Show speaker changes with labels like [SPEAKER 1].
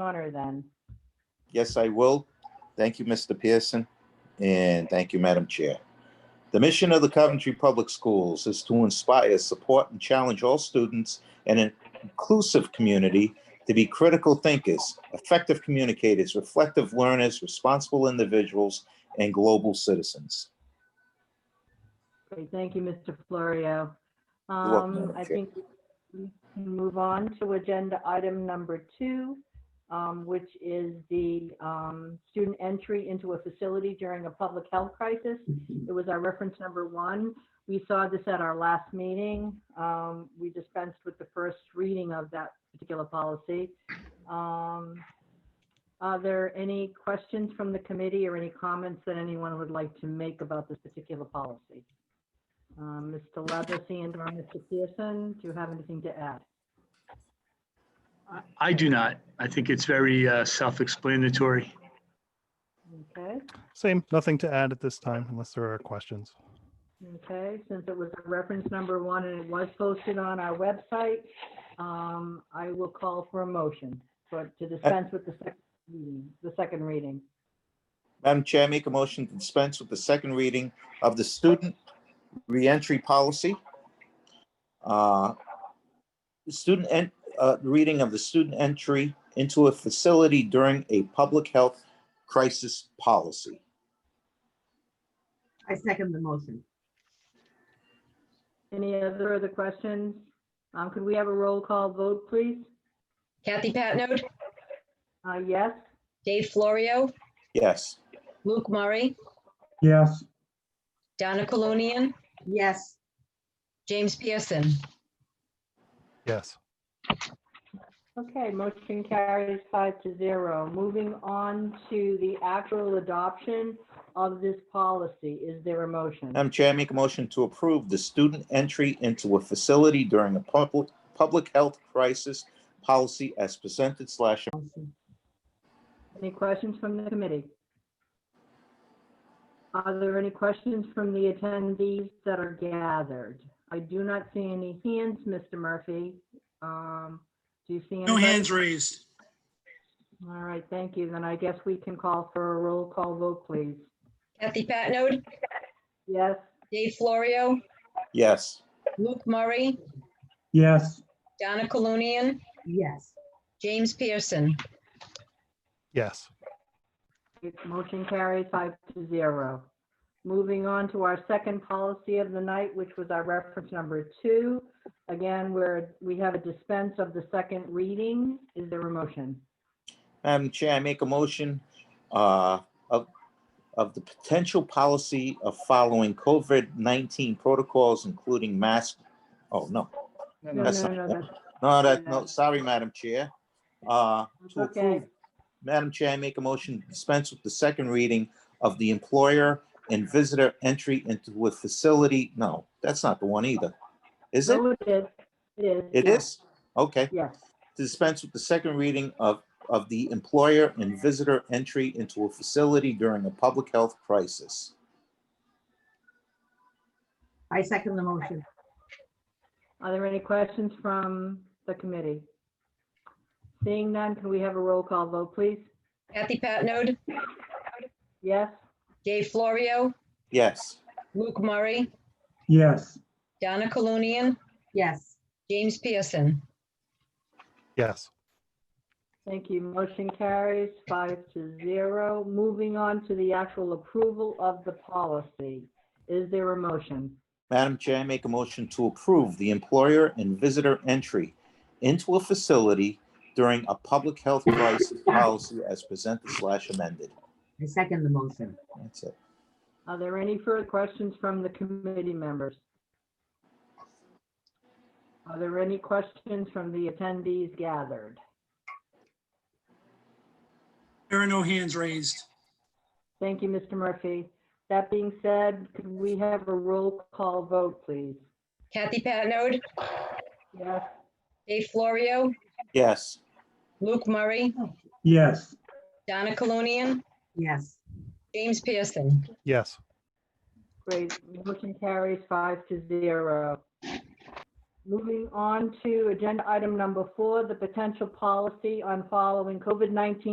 [SPEAKER 1] honor then.
[SPEAKER 2] Yes, I will. Thank you, Mr. Pearson, and thank you, Madam Chair. The mission of the Coventry Public Schools is to inspire, support, and challenge all students in an inclusive community to be critical thinkers, effective communicators, reflective learners, responsible individuals, and global citizens.
[SPEAKER 1] Great, thank you, Mr. Florio.
[SPEAKER 2] You're welcome,
[SPEAKER 1] Um,
[SPEAKER 2] Madam
[SPEAKER 1] I
[SPEAKER 2] Chair.
[SPEAKER 1] think we can move on to agenda item number two, um, which is the um, student entry into a facility during a public health crisis. It was our reference number one. We saw this at our last meeting. Um, We dispensed with the first reading of that particular policy. Um, Are there any questions from the committee or any comments that anyone would like to make about this particular policy? Um, Mr. Levacy and or Mr. Pearson, do you have anything to add?
[SPEAKER 3] I- I do not. I think it's very uh, self-explanatory.
[SPEAKER 1] Okay,
[SPEAKER 4] Same, nothing to add at this time unless there are questions.
[SPEAKER 1] okay, since it was a reference number one and it was posted on our website, um, I will call for a motion for, to dispense with the second reading, the second reading.
[SPEAKER 2] Madam Chair, I make a motion to dispense with the second reading of the student reentry policy. Uh, Student and, uh, reading of the student entry into a facility during a public health crisis policy.
[SPEAKER 5] I second the motion.
[SPEAKER 1] Any other other questions? Um, could we have a roll call vote, please?
[SPEAKER 6] Kathy Patnode,
[SPEAKER 1] Uh, yes?
[SPEAKER 6] Dave Florio,
[SPEAKER 2] Yes,
[SPEAKER 6] Luke Murray,
[SPEAKER 7] Yes,
[SPEAKER 6] Donna Colonian,
[SPEAKER 5] Yes,
[SPEAKER 6] James Pearson.
[SPEAKER 4] Yes,
[SPEAKER 1] Okay, motion carries five to zero. Moving on to the actual adoption of this policy. Is there a motion?
[SPEAKER 2] Madam Chair, I make a motion to approve the student entry into a facility during a public, public health crisis policy as presented slash.
[SPEAKER 1] Any questions from the committee? Are there any questions from the attendees that are gathered? I do not see any hands, Mr. Murphy. Um, Do you see?
[SPEAKER 8] No
[SPEAKER 1] anybody?
[SPEAKER 8] hands raised.
[SPEAKER 1] All right, thank you. Then I guess we can call for a roll call vote, please.
[SPEAKER 6] Kathy Patnode,
[SPEAKER 1] Yes?
[SPEAKER 6] Dave Florio,
[SPEAKER 2] Yes.
[SPEAKER 6] Luke Murray,
[SPEAKER 7] yes,
[SPEAKER 6] Donna Colonian,
[SPEAKER 5] yes,
[SPEAKER 6] James Pearson.
[SPEAKER 4] yes,
[SPEAKER 1] Motion carries five to zero. Moving on to our second policy of the night, which was our reference number two. Again, where we have a dispense of the second reading. Is there a motion?
[SPEAKER 2] Madam Chair, I make a motion uh, of, of the potential policy of following COVID-19 protocols, including mask, oh, no.
[SPEAKER 1] No,
[SPEAKER 2] That's
[SPEAKER 1] no,
[SPEAKER 2] not-
[SPEAKER 1] no, that's-
[SPEAKER 2] No, that, no, sorry, Madam Chair. Uh, to
[SPEAKER 1] Okay,
[SPEAKER 2] approve- Madam Chair, I make a motion to dispense with the second reading of the employer and visitor entry into a facility. No, that's not the one either. Is it?
[SPEAKER 1] so it is. It is.
[SPEAKER 2] It
[SPEAKER 1] yeah,
[SPEAKER 2] is? Okay.
[SPEAKER 1] Yes,
[SPEAKER 2] to dispense with the second reading of, of the employer and visitor entry into a facility during a public health crisis.
[SPEAKER 5] I second the motion.
[SPEAKER 1] are there any questions from the committee? Seeing none, can we have a roll call vote, please?
[SPEAKER 6] Kathy Patnode,
[SPEAKER 1] Yes?
[SPEAKER 6] Dave Florio,
[SPEAKER 2] Yes,
[SPEAKER 6] Luke Murray,
[SPEAKER 7] yes,
[SPEAKER 6] Donna Colonian,
[SPEAKER 5] Yes,
[SPEAKER 6] James Pearson.
[SPEAKER 4] yes,
[SPEAKER 1] Thank you. Motion carries five to zero. Moving on to the actual approval of the policy. Is there a motion?
[SPEAKER 2] Madam Chair, I make a motion to approve the employer and visitor entry into a facility during a public health crisis policy as presented slash amended.
[SPEAKER 5] I second the motion.
[SPEAKER 2] That's it.
[SPEAKER 1] Are there any further questions from the committee members? Are there any questions from the attendees gathered?
[SPEAKER 8] There are no hands raised.
[SPEAKER 1] Thank you, Mr. Murphy. That being said, could we have a roll call vote, please?
[SPEAKER 6] Kathy Patnode,
[SPEAKER 1] Yes,
[SPEAKER 6] Dave Florio,
[SPEAKER 2] Yes,
[SPEAKER 6] Luke Murray,
[SPEAKER 7] yes,
[SPEAKER 6] Donna Colonian,
[SPEAKER 5] Yes,
[SPEAKER 6] James Pearson.
[SPEAKER 4] yes,
[SPEAKER 1] great. Motion carries five to zero. Moving on to agenda item number four, the potential policy on following COVID-19